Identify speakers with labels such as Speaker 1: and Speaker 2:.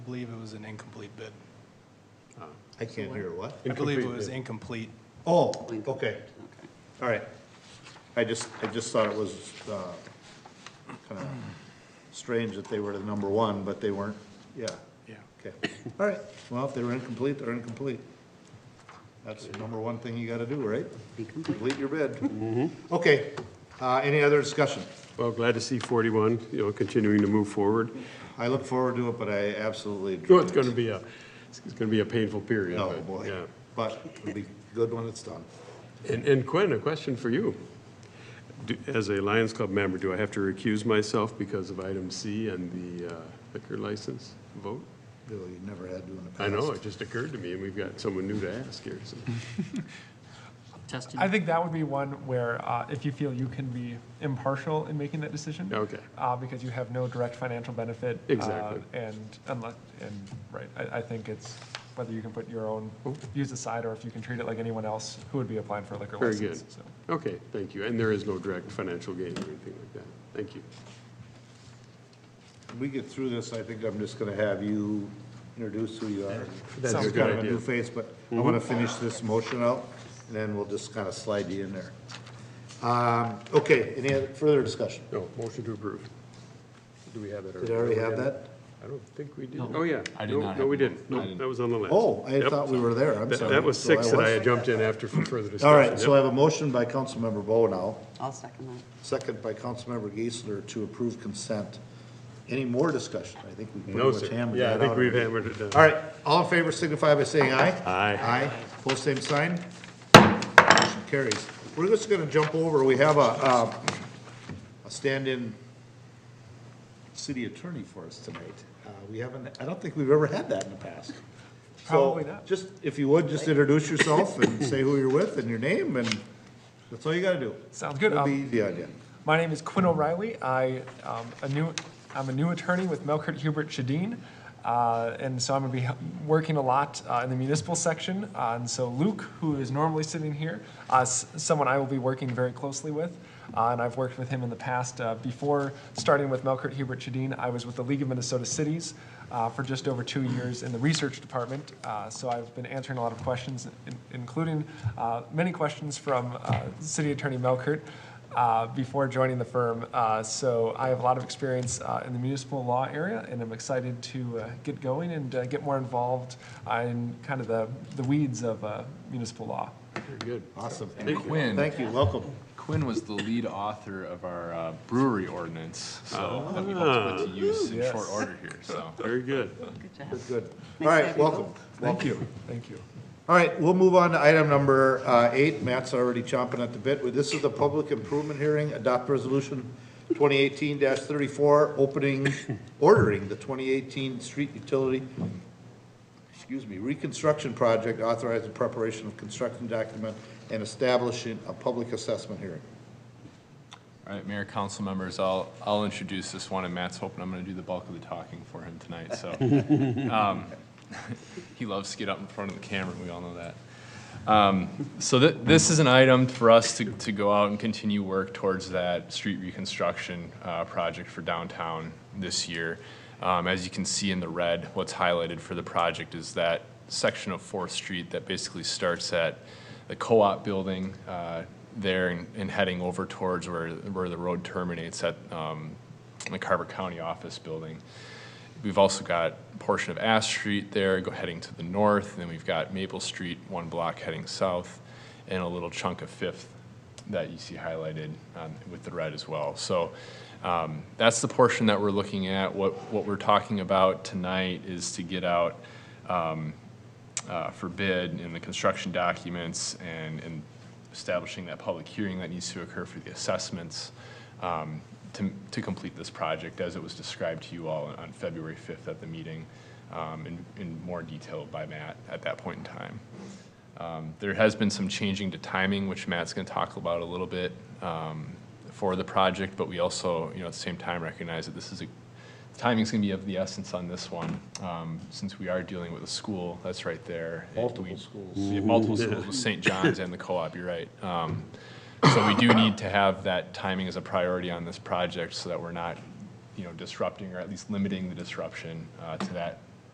Speaker 1: I believe it was an incomplete bid.
Speaker 2: I can't hear what?
Speaker 1: I believe it was incomplete.
Speaker 2: Oh, okay, all right. I just, I just thought it was, uh, kinda strange that they were the number one, but they weren't, yeah,
Speaker 1: Yeah.
Speaker 2: okay. All right, well, if they were incomplete, they're incomplete. That's the number one thing you gotta do, right?
Speaker 3: Be complete.
Speaker 2: Complete
Speaker 3: Mm-hmm.
Speaker 2: your bid. Okay, uh, any other discussion?
Speaker 4: Well, glad to see 41, you know, continuing to move forward.
Speaker 2: I look forward to it, but I absolutely.
Speaker 4: Well, It's going to be a, it's going to be a painful period.
Speaker 2: No,
Speaker 4: but,
Speaker 2: Oh, boy,
Speaker 4: yeah.
Speaker 2: but it'll be good when it's done.
Speaker 4: And and Quinn, a question for you. Do- As a Lions Club member, do I have to recuse myself because of item C and the uh, liquor license vote?
Speaker 2: Bill, you never had to in the past.
Speaker 4: I know, it just occurred to me, and we've got someone new to ask here, so.
Speaker 5: I
Speaker 3: Justin,
Speaker 5: think that would be one where uh, if you feel you can be impartial in making that decision.
Speaker 4: Okay.
Speaker 5: Uh, because you have no direct financial benefit. uh,
Speaker 4: Exactly.
Speaker 5: And unless, and, right, I, I think it's whether you can put your own views aside or if you can treat it like anyone else who would be applying for a liquor
Speaker 4: Very
Speaker 5: license.
Speaker 4: good.
Speaker 5: so.
Speaker 4: Okay, thank you. And there is no direct financial gain or anything like that. Thank you.
Speaker 2: When we get through this, I think I'm just gonna have you introduce who you are.
Speaker 4: That's
Speaker 2: You're
Speaker 4: a good
Speaker 2: kind of a
Speaker 4: idea. Mm-hmm.
Speaker 2: new face, but I wanna finish this motion out, and then we'll just kind of slide you in there. Um, okay, any other, further discussion?
Speaker 4: No, motion to approve. Do we have it?
Speaker 2: Did I already have that?
Speaker 4: I don't think we did. Oh, yeah.
Speaker 6: I did
Speaker 4: No, No,
Speaker 6: not have
Speaker 4: we
Speaker 6: one.
Speaker 4: didn't.
Speaker 6: I
Speaker 4: No,
Speaker 6: didn't.
Speaker 4: that was on the list.
Speaker 2: Oh, I
Speaker 4: Yep.
Speaker 2: thought we were there, I'm
Speaker 4: That,
Speaker 2: sorry.
Speaker 4: that was
Speaker 2: So
Speaker 4: six that I
Speaker 2: was-
Speaker 4: had jumped in after for further discussion.
Speaker 2: All right, so I
Speaker 4: Yep.
Speaker 2: have a motion by Councilmember Bo now,
Speaker 3: I'll second that.
Speaker 2: second by Councilmember Geisler to approve consent. Any more discussion? I think we
Speaker 4: No,
Speaker 2: pretty much
Speaker 4: sir.
Speaker 2: hammered that
Speaker 4: Yeah, I
Speaker 2: out.
Speaker 4: think we've
Speaker 2: already.
Speaker 4: hammered it down.
Speaker 2: All right, all in favor signify by saying aye.
Speaker 4: Aye.
Speaker 2: Aye, pull same sign. Motion carries. We're just gonna jump over, we have a, um, a stand-in city attorney for us tonight. Uh, we haven't, I don't think we've ever had that in the past. So,
Speaker 5: Probably not.
Speaker 2: Just, if you would, just introduce yourself and say who you're with and your name, and that's all you gotta do.
Speaker 5: Sounds good.
Speaker 2: It'll be
Speaker 5: Um,
Speaker 2: easy on you.
Speaker 5: My name is Quinn O'Reilly. I, um, a new, I'm a new attorney with Melkert Hubert Shadeen. Uh, and so I'm going to be hel- working a lot uh, in the municipal section. Uh, and so Luke, who is normally sitting here, uh, s- someone I will be working very closely with. Uh, and I've worked with him in the past. Uh, before starting with Melkert Hubert Shadeen, I was with the League of Minnesota Cities uh, for just over two years in the research department. Uh, so I've been answering a lot of questions, in- including uh, many questions from uh, City Attorney Melkert uh, before joining the firm. Uh, so I have a lot of experience uh, in the municipal law area, and I'm excited to uh, get going and uh, get more involved uh, in kind of the, the weeds of uh, municipal law.
Speaker 4: Very good.
Speaker 2: Awesome.
Speaker 6: Quinn,
Speaker 2: Thank you, welcome.
Speaker 6: Quinn was the lead author of our uh, brewery ordinance, so that we hope to put to use in
Speaker 5: Yes.
Speaker 6: short order here, so.
Speaker 4: Very good.
Speaker 3: Good job.
Speaker 2: Good. All
Speaker 3: Nice to
Speaker 2: right,
Speaker 3: have you
Speaker 2: welcome.
Speaker 3: both.
Speaker 5: Thank you. Thank you.
Speaker 2: All right, we'll move on to item number uh, eight. Matt's already chomping at the bit. This is the public improvement hearing. Adopt resolution 2018-34, opening, ordering the 2018 street utility, excuse me, reconstruction project, authorizing preparation of construction document, and establishing a public assessment hearing.
Speaker 6: All right, Mayor, council members, I'll, I'll introduce this one, and Matt's hoping I'm going to do the bulk of the talking for him tonight, so. um, He loves to get up in front of the camera, we all know that. Um, So thi- this is an item for us to, to go out and continue work towards that street reconstruction uh, project for downtown this year. Um, As you can see in the red, what's highlighted for the project is that section of Fourth Street that basically starts at the co-op building uh, there and and heading over towards where, where the road terminates at um, the Carver County Office Building. We've also got a portion of Ash Street there, go heading to the north, and then we've got Maple Street, one block heading south, and a little chunk of Fifth that you see highlighted um, with the red as well. So um, that's the portion that we're looking at. What, what we're talking about tonight is to get out um, uh, for bid in the construction documents and, and establishing that public hearing that needs to occur for the assessments um, to, to complete this project as it was described to you all on February 5th at the meeting um, in, in more detail by Matt at that point in time. Um, There has been some changing to timing, which Matt's going to talk about a little bit um, for the project, but we also, you know, at the same time recognize that this is a, timing's going to be of the essence on this one, um, since we are dealing with a school that's right there.
Speaker 2: Multiple
Speaker 6: We-
Speaker 2: schools.
Speaker 6: we have multiple schools with St. John's and the co-op, you're right. Um, So we do need to have that timing as a priority on this project so that we're not, you know, disrupting or at least limiting the disruption uh, to that